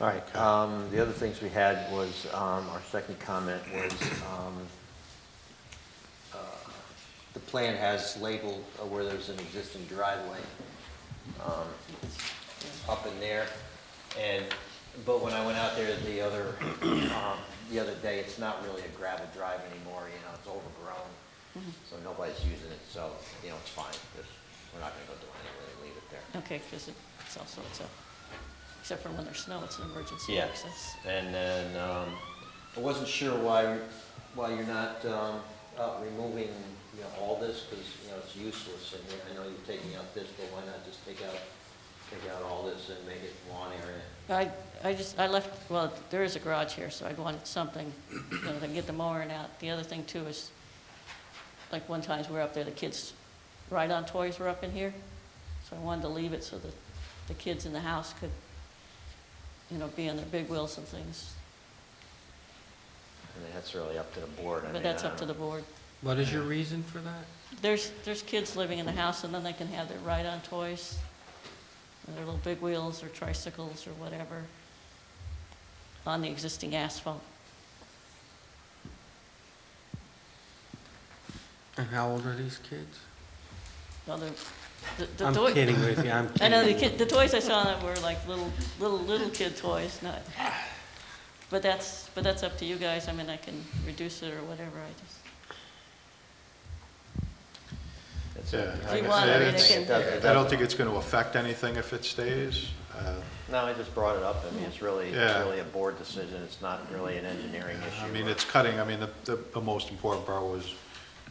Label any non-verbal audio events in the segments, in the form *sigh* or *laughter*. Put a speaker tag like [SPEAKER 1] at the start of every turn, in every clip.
[SPEAKER 1] All right, um, the other things we had was, um, our second comment was, um, uh, the plan has labeled uh, where there's an existing driveway, um, up in there. And, but when I went out there the other, um, the other day, it's not really a gravel drive anymore, you know, it's overgrown. So nobody's using it, so, you know, it's fine, Just- we're not gonna go do anything, leave it there.
[SPEAKER 2] Okay, because it's also, it's a, except for when there's snow, it's an emergency
[SPEAKER 1] Yeah,
[SPEAKER 2] access.
[SPEAKER 1] and then, um, I wasn't sure why, why you're not, um, out removing, you know, all this, because, you know, it's useless, and I know you're taking out this, but why not just take out, take out all this and make it lawn area?
[SPEAKER 2] I, I just, I left, well, there is a garage here, so I wanted something, you know, to get the mowing out. The other thing too is, like one times we were up there, the kids' ride-on toys were up in here. So I wanted to leave it so that the kids in the house could, you know, be on their big wheels and things.
[SPEAKER 1] I mean, that's really up to the board, I mean,
[SPEAKER 2] But that's
[SPEAKER 1] I
[SPEAKER 2] up to
[SPEAKER 1] don't-
[SPEAKER 2] the board.
[SPEAKER 3] What is your reason for that?
[SPEAKER 2] There's, there's kids living in the house, and then they can have their ride-on toys, and their little big wheels or tricycles or whatever, on the existing asphalt.
[SPEAKER 3] And how old are these kids?
[SPEAKER 2] Well, the- the- the
[SPEAKER 3] I'm
[SPEAKER 2] toy-
[SPEAKER 3] kidding with you, I'm
[SPEAKER 2] *laughs* I know, the
[SPEAKER 3] kidding.
[SPEAKER 2] kid, the toys I saw that were like little, little, little kid toys, not, but that's, but that's up to you guys, I mean, I can reduce it or whatever, I just,
[SPEAKER 1] That's
[SPEAKER 4] Yeah,
[SPEAKER 1] up to-
[SPEAKER 4] like
[SPEAKER 2] Do you
[SPEAKER 4] I
[SPEAKER 2] want-
[SPEAKER 4] said,
[SPEAKER 2] I mean,
[SPEAKER 4] it's-
[SPEAKER 2] they
[SPEAKER 1] It doesn't- it
[SPEAKER 4] I don't
[SPEAKER 1] doesn't-
[SPEAKER 4] think it's going to affect anything if it stays. Uh,
[SPEAKER 1] No, I just brought it up, I mean, it's really, it's
[SPEAKER 4] Yeah.
[SPEAKER 1] really a board decision, it's not really an engineering issue.
[SPEAKER 4] Uh, I mean,
[SPEAKER 1] or-
[SPEAKER 4] it's cutting, I mean, the- the, the most important part was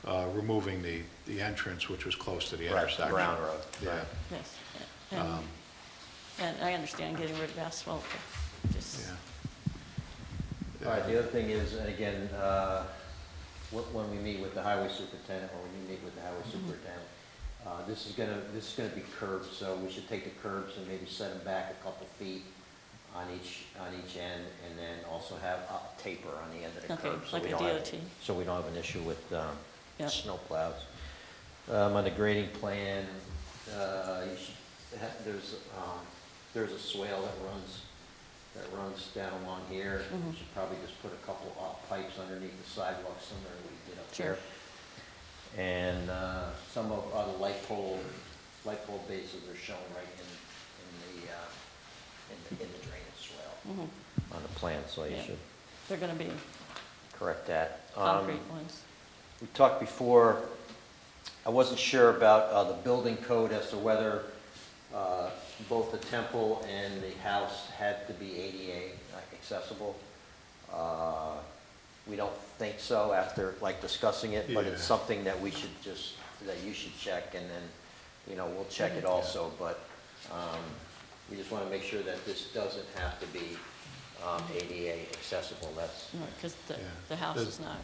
[SPEAKER 4] uh, removing the, the entrance, which was close to the
[SPEAKER 1] Right,
[SPEAKER 4] intersection.
[SPEAKER 1] Brown Road,
[SPEAKER 4] Yeah, Um,
[SPEAKER 1] right.
[SPEAKER 2] yes. And, and I understand getting rid of asphalt, but just,
[SPEAKER 4] yeah.
[SPEAKER 1] All right, the other thing is, and again, uh, wh- when we meet with the highway superintendent, or when you meet with the highway
[SPEAKER 2] Mm-hmm.
[SPEAKER 1] superintendent, uh, this is gonna, this is gonna be curbs, so we should take the curbs and maybe set them back a couple feet on each, on each end, and then also have a taper on the end of the
[SPEAKER 2] Okay,
[SPEAKER 1] curb. so
[SPEAKER 2] like
[SPEAKER 1] we
[SPEAKER 2] a
[SPEAKER 1] don't have-
[SPEAKER 2] DOT.
[SPEAKER 1] So we don't have an issue with um,
[SPEAKER 2] Yeah.
[SPEAKER 1] snowplows. Um, On the grading plan, uh, you should, ha- there's, um, there's a swale that runs, that runs down along here.
[SPEAKER 2] Mm-hmm.
[SPEAKER 1] We should probably just put a couple of pipes underneath the sidewalk somewhere we did up
[SPEAKER 2] Sure.
[SPEAKER 1] there. And uh, some of uh, the light pole, light pole bases are shown right in, in the, uh, in the, in the drainage swale
[SPEAKER 2] Mhm.
[SPEAKER 1] on the plan, so you
[SPEAKER 2] Yeah.
[SPEAKER 1] should
[SPEAKER 2] they're gonna be
[SPEAKER 1] correct that. Um,
[SPEAKER 2] concrete ones.
[SPEAKER 1] we talked before, I wasn't sure about uh, the building code as to whether uh, both the temple and the house had to be ADA accessible. Uh, We don't think so after, like, discussing it, but it's
[SPEAKER 4] Yeah.
[SPEAKER 1] something that we should just, that you should check, and then, you know, we'll check it also, but um, we just want to make sure that this doesn't have to be um, ADA accessible, that's,
[SPEAKER 2] Because the,
[SPEAKER 4] Yeah.
[SPEAKER 2] the house
[SPEAKER 4] Does-
[SPEAKER 2] is not,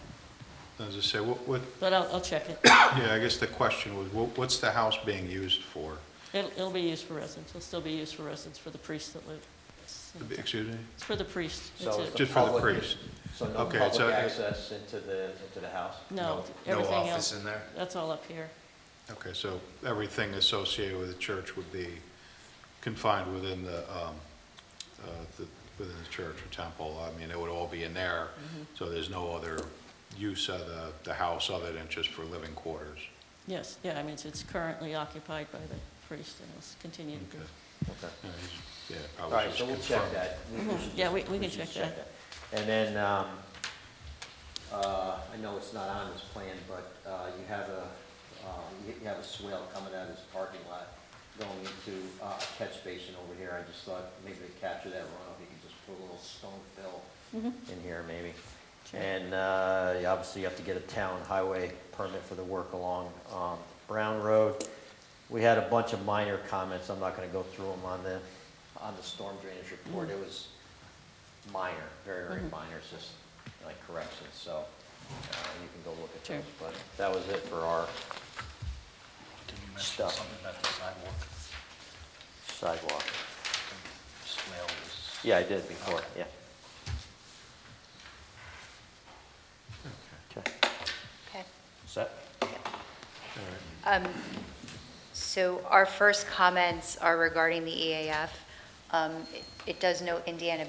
[SPEAKER 4] As I say, what, what,
[SPEAKER 2] but I'll, I'll check it.
[SPEAKER 4] yeah, I guess the question was, what- what's the house being used for?
[SPEAKER 2] It'll, it'll be used for residents, it'll still be used for residents, for the priests that live. It's
[SPEAKER 4] Excuse me?
[SPEAKER 2] it's for the priests. It's
[SPEAKER 1] So
[SPEAKER 2] a-
[SPEAKER 1] it's
[SPEAKER 4] Just for the
[SPEAKER 1] public-
[SPEAKER 4] priest.
[SPEAKER 1] So no
[SPEAKER 4] Okay,
[SPEAKER 1] public
[SPEAKER 4] so it-
[SPEAKER 1] access into the, into the house?
[SPEAKER 2] No,
[SPEAKER 5] No
[SPEAKER 2] everything
[SPEAKER 5] office
[SPEAKER 2] else,
[SPEAKER 5] in there?
[SPEAKER 2] that's all up here.
[SPEAKER 4] Okay, so everything associated with the church would be confined within the, um, uh, the- within the church or temple. I mean, it would all be in there, so there's no other use of the, the house other than just for living quarters.
[SPEAKER 2] Yes, yeah, I mean, it's- it's currently occupied by the priest and it's continued.
[SPEAKER 4] Okay.
[SPEAKER 1] Okay.
[SPEAKER 4] All right, Uh, Yeah,
[SPEAKER 1] All
[SPEAKER 4] I
[SPEAKER 1] right,
[SPEAKER 4] was
[SPEAKER 1] so
[SPEAKER 4] just
[SPEAKER 1] we'll check
[SPEAKER 4] confirming.
[SPEAKER 1] that. We- we should
[SPEAKER 2] Mm-hmm. Yeah,
[SPEAKER 1] just-
[SPEAKER 2] we- we can
[SPEAKER 1] should
[SPEAKER 2] check that.
[SPEAKER 1] that. And then, um, uh, I know it's not on this plan, but, uh, you have a, uh, you you have a swale coming out of this parking lot going into uh, a catch basin over here. I just thought maybe to capture that runoff, you could just put a little stone fill in here maybe.
[SPEAKER 2] Sure.
[SPEAKER 1] And, uh, you obviously you have to get a town highway permit for the work along, um, Brown Road. We had a bunch of minor comments, I'm not gonna go through them on the, on the storm drainage report, it was minor, very, very
[SPEAKER 2] Mm-hmm.
[SPEAKER 1] minor, it's just like corrections, so, uh, you can go look at
[SPEAKER 2] Sure.
[SPEAKER 1] those, but that was it for our
[SPEAKER 5] Did you
[SPEAKER 1] mention Stuff. something
[SPEAKER 5] about the sidewalk?
[SPEAKER 1] sidewalk. Yeah, I did before, yeah. Okay,
[SPEAKER 6] Okay.
[SPEAKER 1] set?
[SPEAKER 6] Um, So E our first comments are regarding the EAF. Um, it- It does note Indiana